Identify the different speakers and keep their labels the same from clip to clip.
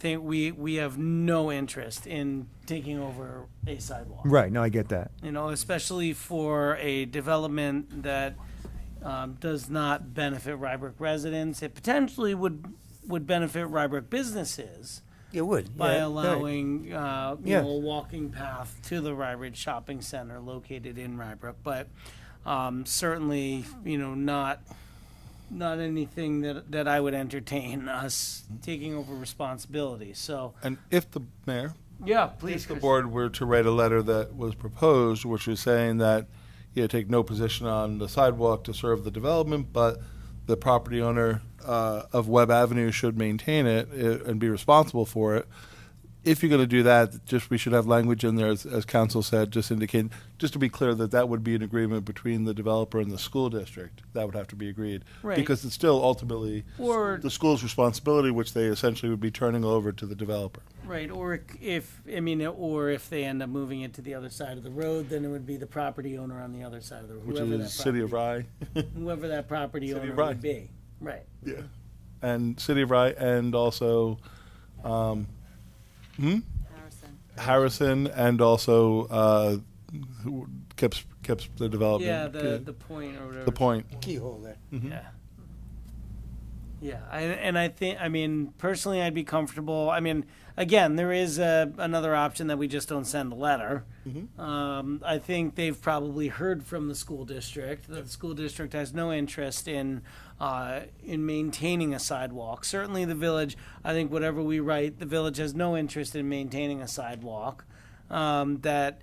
Speaker 1: think we, we have no interest in taking over a sidewalk.
Speaker 2: Right, no, I get that.
Speaker 1: You know, especially for a development that um, does not benefit Rybrook residents. It potentially would, would benefit Rybrook businesses
Speaker 2: It would.
Speaker 1: by allowing, uh, you
Speaker 2: Yeah.
Speaker 1: know, a walking path to the Rybrook Shopping Center located in Rybrook. But um, certainly, you know, not, not anything that, that I would entertain us taking over responsibility. So,
Speaker 3: And if the mayor,
Speaker 1: yeah, please.
Speaker 3: if the
Speaker 1: Chris.
Speaker 3: board were to write a letter that was proposed, which was saying that, you know, take no position on the sidewalk to serve the development, but the property owner uh, of Webb Avenue should maintain it uh, and be responsible for it. If you're going to do that, just we should have language in there, as, as council said, just indicating, just to be clear that that would be an agreement between the developer and the school district. That would have to be agreed.
Speaker 1: Right.
Speaker 3: Because it's still ultimately
Speaker 1: Or-
Speaker 3: the school's responsibility, which they essentially would be turning over to the developer.
Speaker 1: Right, or c- if, I mean, or if they end up moving it to the other side of the road, then it would be the property owner on the other side of the road.
Speaker 3: which
Speaker 1: whoever that
Speaker 3: is City of
Speaker 1: property-
Speaker 3: Rye.
Speaker 1: Whoever that property
Speaker 3: City of
Speaker 1: owner
Speaker 3: Rye.
Speaker 1: would be, right.
Speaker 3: yeah. And City of Rye and also um, hmm?
Speaker 4: Harrison.
Speaker 3: Harrison and also uh, who kept kept the development.
Speaker 1: Yeah,
Speaker 3: uh,
Speaker 1: the, the point or whatever.
Speaker 3: the point.
Speaker 2: Keyhole there.
Speaker 1: Yeah. Yeah, I, and I think, I mean, personally, I'd be comfortable, I mean, again, there is a, another option that we just don't send a letter. Um, I think they've probably heard from the school district, that the school district has no interest in, uh, in maintaining a sidewalk. Certainly the village, I think whatever we write, the village has no interest in maintaining a sidewalk. Um, that,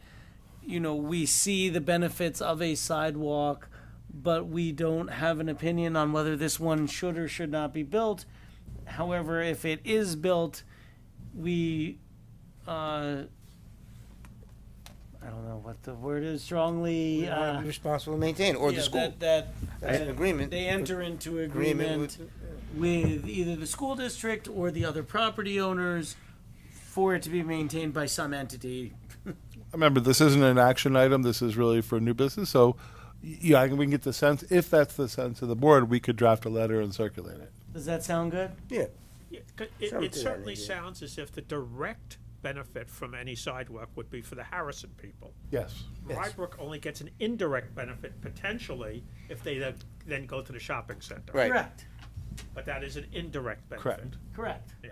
Speaker 1: you know, we see the benefits of a sidewalk, but we don't have an opinion on whether this one should or should not be built. However, if it is built, we, uh, I don't know what the word is strongly, uh,
Speaker 2: Responsible to maintain, or
Speaker 1: yeah,
Speaker 2: the school.
Speaker 1: That, that,
Speaker 2: That's an
Speaker 1: that
Speaker 2: agreement.
Speaker 1: They enter into
Speaker 2: Agreement
Speaker 1: agreement
Speaker 2: with-
Speaker 1: with either the school district or the other property owners for it to be maintained by some entity.
Speaker 3: Remember, this isn't an action item. This is really for new business. So, y- yeah, I can- we can get the sense. If that's the sense of the board, we could draft a letter and circulate it.
Speaker 1: Does that sound good?
Speaker 2: Yeah,
Speaker 5: Yeah, 'cause It,
Speaker 2: Something
Speaker 5: it
Speaker 2: to that
Speaker 5: certainly
Speaker 2: nature.
Speaker 5: sounds as if the direct benefit from any sidewalk would be for the Harrison people.
Speaker 3: Yes.
Speaker 2: Yes.
Speaker 5: Rybrook only gets an indirect benefit potentially if they then- then go to the shopping center.
Speaker 2: Right.
Speaker 1: Correct,
Speaker 5: But that is an indirect benefit.
Speaker 3: Correct.
Speaker 1: correct.
Speaker 5: Yeah.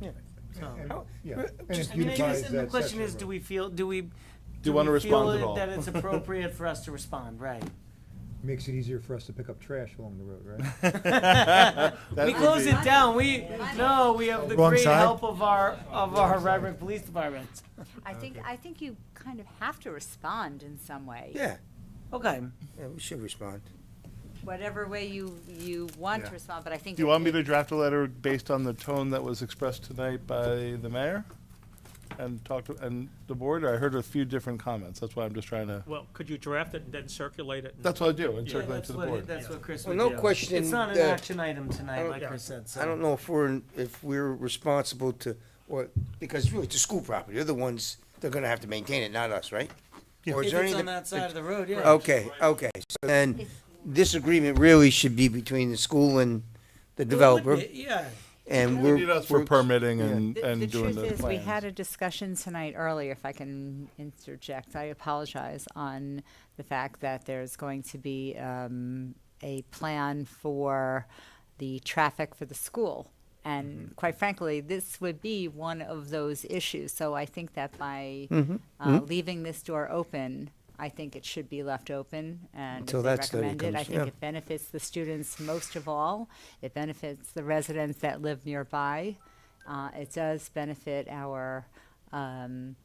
Speaker 2: yeah.
Speaker 1: So-
Speaker 6: Yeah, and
Speaker 2: Just-
Speaker 6: it
Speaker 1: I mean, I guess
Speaker 6: beautifies
Speaker 1: then the
Speaker 6: that
Speaker 1: question
Speaker 6: section
Speaker 1: is,
Speaker 6: of
Speaker 1: do
Speaker 6: road.
Speaker 1: we feel, do we? Do
Speaker 3: you wanna
Speaker 1: we
Speaker 3: respond
Speaker 1: feel
Speaker 3: at all?
Speaker 1: That it's appropriate for us to respond, right?
Speaker 6: Makes it easier for us to pick up trash along the road, right?
Speaker 1: We close it down, we, no, we have the
Speaker 2: Wrong
Speaker 1: great
Speaker 2: side?
Speaker 1: help of our, of our Rybrook Police Department.
Speaker 4: I think, I think you kind of have to respond in some way.
Speaker 2: Yeah,
Speaker 1: Okay,
Speaker 2: yeah, we should respond.
Speaker 4: Whatever way you, you want
Speaker 3: Yeah.
Speaker 4: to respond, but I think.
Speaker 3: Do you
Speaker 4: it-
Speaker 3: want me
Speaker 4: it-
Speaker 3: to draft a letter based on the tone that was expressed tonight by the mayor? And talk to, and the board, I heard a few different comments, that's why I'm just trying to,
Speaker 5: Well, could you draft it and then circulate it? and-
Speaker 3: that's what I do, and
Speaker 5: Yeah,
Speaker 3: circulate
Speaker 1: that's
Speaker 3: to the
Speaker 1: what,
Speaker 3: board.
Speaker 1: that's what Chris
Speaker 2: Well,
Speaker 1: would
Speaker 2: no
Speaker 1: do.
Speaker 2: question
Speaker 1: It's not an
Speaker 2: that-
Speaker 1: action item
Speaker 2: I
Speaker 1: tonight,
Speaker 2: don't-
Speaker 1: like
Speaker 5: yeah.
Speaker 1: Chris said, so.
Speaker 2: I don't know if we're, if we're responsible to, or, because really, it's the school property, they're the ones, they're gonna have to maintain it, not us, right? Or is
Speaker 1: If
Speaker 2: there
Speaker 1: it's
Speaker 2: any-
Speaker 1: on that side of the road, yeah.
Speaker 2: Okay, okay, so then, this agreement really should be between the school and the developer,
Speaker 1: Yeah,
Speaker 2: and
Speaker 3: You
Speaker 2: we're.
Speaker 3: need us for
Speaker 2: we're-
Speaker 3: permitting and,
Speaker 4: The-
Speaker 3: and doing the
Speaker 4: The truth is, we had
Speaker 3: plans.
Speaker 4: a discussion tonight earlier, if I can interject, I apologize, on the fact that there's going to be um, a plan for the traffic for the school.
Speaker 2: Mm-hmm.
Speaker 4: And quite frankly, this would be one of those issues. So I think that by
Speaker 2: Mm-hmm.
Speaker 4: uh, leaving this door open, I think it should be left open and if
Speaker 2: Until
Speaker 4: they
Speaker 2: that study
Speaker 4: recommend it. I
Speaker 2: comes,
Speaker 4: think
Speaker 2: yeah.
Speaker 4: it benefits the students most of all. It benefits the residents that live nearby. Uh, it does benefit our um,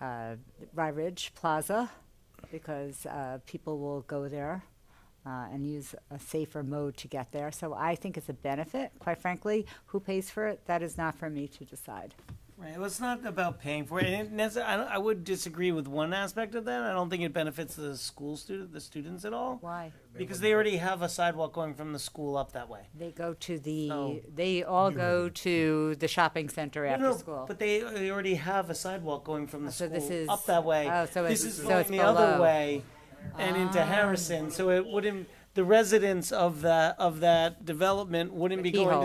Speaker 4: uh, Rye Ridge Plaza because uh, people will go there uh, and use a safer mode to get there. So I think it's a benefit, quite frankly. Who pays for it? That is not for me to decide.
Speaker 1: right, well, it's not about paying for it, and it necess- I, don't- I would disagree with one aspect of that, I don't think it benefits the school student, the students at all.
Speaker 4: Why?
Speaker 1: Because they already have a sidewalk going from the school up that way.
Speaker 4: They go to the,
Speaker 1: Oh.
Speaker 4: they all go to the shopping center
Speaker 1: No,
Speaker 4: after
Speaker 1: no,
Speaker 4: school. Oh,
Speaker 1: But they, they already have a sidewalk going from the
Speaker 4: So
Speaker 1: school
Speaker 4: this is-
Speaker 1: up that way.
Speaker 4: oh, so
Speaker 1: this
Speaker 4: it's- Ah.
Speaker 1: is
Speaker 4: so
Speaker 1: going
Speaker 4: it's
Speaker 1: the other
Speaker 4: below.
Speaker 1: way and into Harrison, so it wouldn't. the residents of that, of that development wouldn't be going to
Speaker 4: Keyhole.